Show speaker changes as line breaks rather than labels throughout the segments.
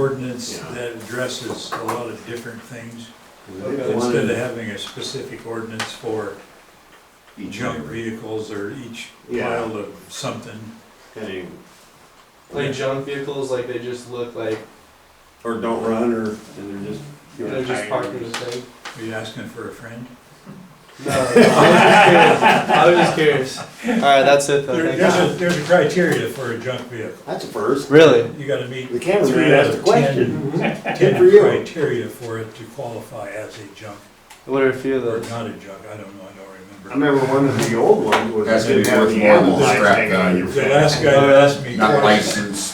ordinance
Yeah.
that addresses a lot of different things,
Yeah.
instead of having a specific ordinance for
Each
junk
number.
vehicles or each
Yeah.
pile of something.
Any-
Like junk vehicles, like they just look like,
Or don't run, or, and they're just.
they're just parked in the thing.
Are you asking for a friend?
No, I was just curious. I was just curious. Alright, that's it
There-
though,
There's
thank
a, there's a criteria for a junk vehicle.
That's a first.
you. Really?
You gotta meet
The
Three
cameraman
out
asked
of
the
ten.
question. Mm-hmm.
ten
Good for you.
criteria for it to qualify as a junk,
What are a few of
or
those?
not a junk, I don't know, I don't remember.
I remember one of the old ones was.
That's gonna be
didn't have
worth
the
more than
animal
the
eyes
scrap
hanging on
value.
your
The
fence.
last guy that asked me.
not
questions,
licensed,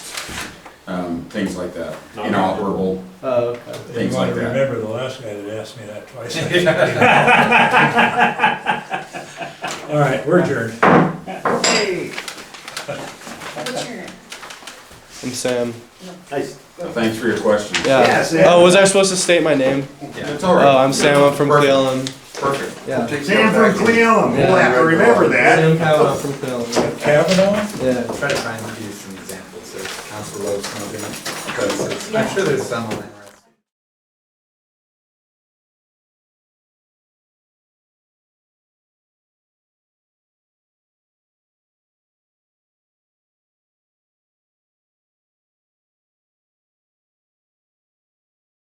um, things like that,
Not-
inoperable.
Oh, okay.
and
things
You wanna
like that.
remember the last guy that asked me that twice. All right, we're adjourned.
What's your name?
I'm Sam.
Nice.
Thanks for your questions.
Yeah.
Yeah, Sam.
Oh, was I supposed to state my name?
It's all
Oh,
right.
I'm Sam, I'm from
Perfect.
Cleveland.
Perfect.
Yeah.
Sam from Cleveland, we'll have to remember that.
Sam Powell, I'm from Cleveland.
Kavanaugh?
Yeah.
Try to find you some examples of council low smoking, because it's- I'm sure there's some online, right?